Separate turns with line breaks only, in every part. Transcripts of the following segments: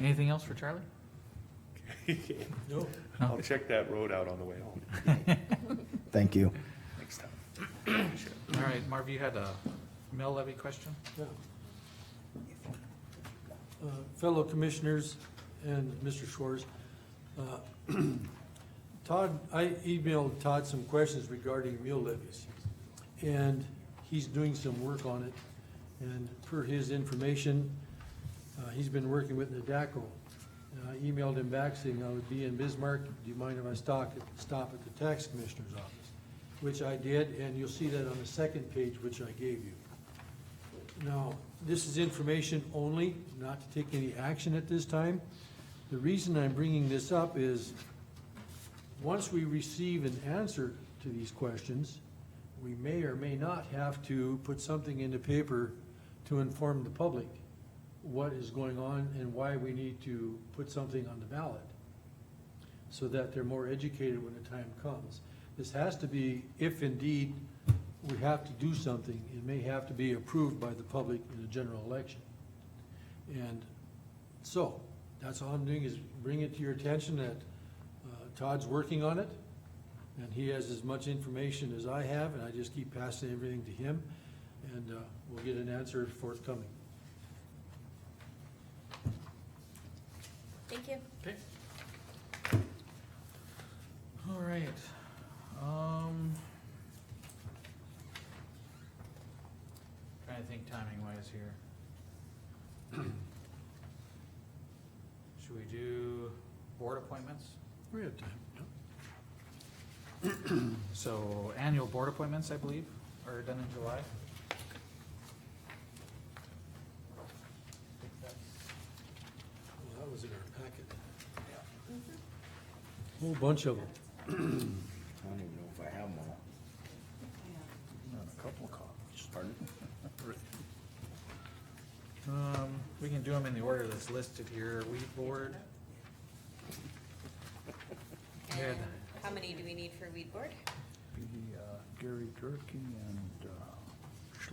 Anything else for Charlie?
No.
No.
I'll check that road out on the way home
Thank you.
next time. Sure.
All right, Marv, you had a mill levy question?
Yeah. Uh, Fellow commissioners and Mr. Schwartz, uh, Todd, I emailed Todd some questions regarding meal levies. And he's doing some work on it. And per his information, uh, he's been working with Nadaco. And I emailed him back saying I would be in Bismarck. Do you mind if I stop, stop at the tax commissioner's office? Which I did, and you'll see that on the second page, which I gave you. Now, this is information only, not to take any action at this time. The reason I'm bringing this up is, once we receive an answer to these questions, we may or may not have to put something in the paper to inform the public what is going on and why we need to put something on the ballot, so that they're more educated when the time comes. This has to be, if indeed we have to do something, it may have to be approved by the public in a general election. And so, that's all I'm doing is bring it to your attention that uh, Todd's working on it, and he has as much information as I have, and I just keep passing everything to him, and uh, we'll get an answer forthcoming.
Thank you.
Okay. All right, um. Trying to think timing wise here. Should we do board appointments?
We have time.
So annual board appointments, I believe, are done in July.
Well, that was in our packet. Whole bunch of them.
I don't even know if I have them all. A couple of copies. Pardon?
Um, we can do them in the order that's listed here, weed board. We had-
And how many do we need for weed board?
uh,
Gary Durkey and uh,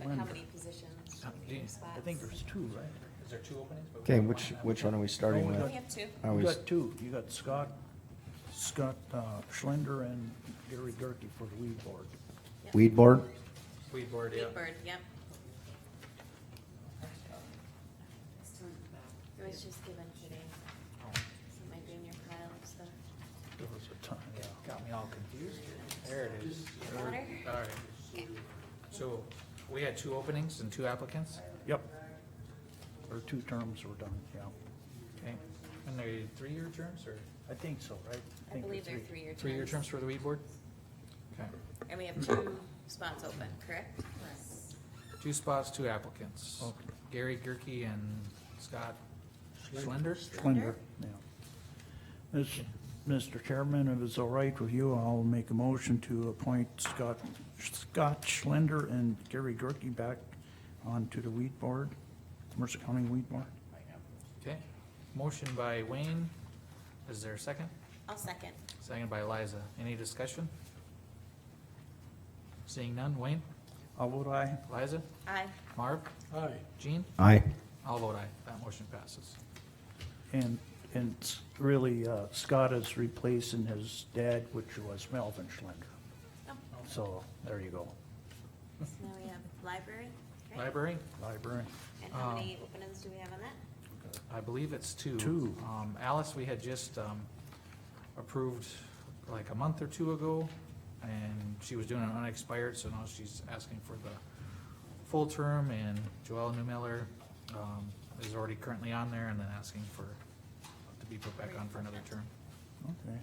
Like how
Schlender.
many positions?
Uh,
How many
do you-
spots?
I think there's two, right?
Is there two openings? But we
Okay,
have
which,
one.
which one are we starting
We
with?
only have two.
Are
You
we,
got two. You got Scott, Scott uh, Schlender and Gary Gerke for the weed board.
Yep.
weed board?
Weed board, yeah.
Weed board, yep. It was just given today,
Oh,
so it might be in your pile of stuff.
There was a time, yeah.
Got me all confused here. There it is.
Water?
All right. So we had two openings and two applicants,
Yep. Or two terms were done, yeah.
okay? And they three-year terms or
I think so, right?
I
think
believe they're
they're three.
three-year terms.
three-year terms for the weed board? Okay.
And we have two spots open, correct?
Two spots, two applicants.
Okay.
Gary Gerke and Scott Schlender?
Schlender, yeah. Mis- Mr. Chairman, if it's all right with you, I'll make a motion to appoint Scott, Scott Schlender and Gary Gerke back onto the weed board, Mercer County Weed Board.
Okay. Motion by Wayne. Is there a second?
I'll second.
Second by Liza. Any discussion? Seeing none. Wayne?
I'll vote aye.
Liza?
Aye.
Marv?
Aye.
Jean?
Aye.
I'll vote aye. That motion passes.
And, and s- really, uh, Scott is replacing his dad, which was Melvin Schlender.
Oh,
So, there you go.
so now we have library, right?
Library?
Library.
And how
Um,
many openings do we have on that?
I believe it's two.
Two.
Um, Alice, we had just, um, approved like a month or two ago, and she was doing an unexpired, so now she's asking for the full term, and Joelle Newmiller, um, is already currently on there, and then asking for, to be put back on for another term.
Okay.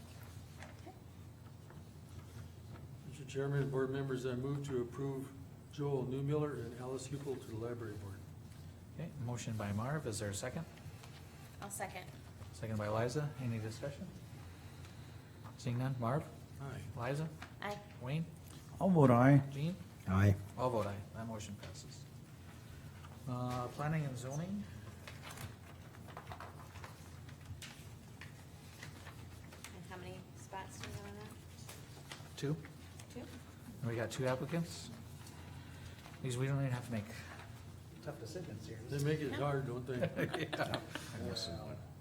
Mr. Chairman and board members, I move to approve Joel Newmiller and Alice Hupel to the library board.
Okay, motion by Marv, is there a second?
I'll second.
Second by Liza, any discussion? Seeing none, Marv,
Aye.
Liza,
Aye.
Wayne,
I'll vote aye.
Jean?
Aye.
I'll vote aye, that motion passes. Uh, planning and zoning,
And how many spots do we have on that?
two,
Two?
and we got two applicants. These, we don't even have to make tough decisions here.
They make it hard, don't they?
Yeah.
I'm missing one.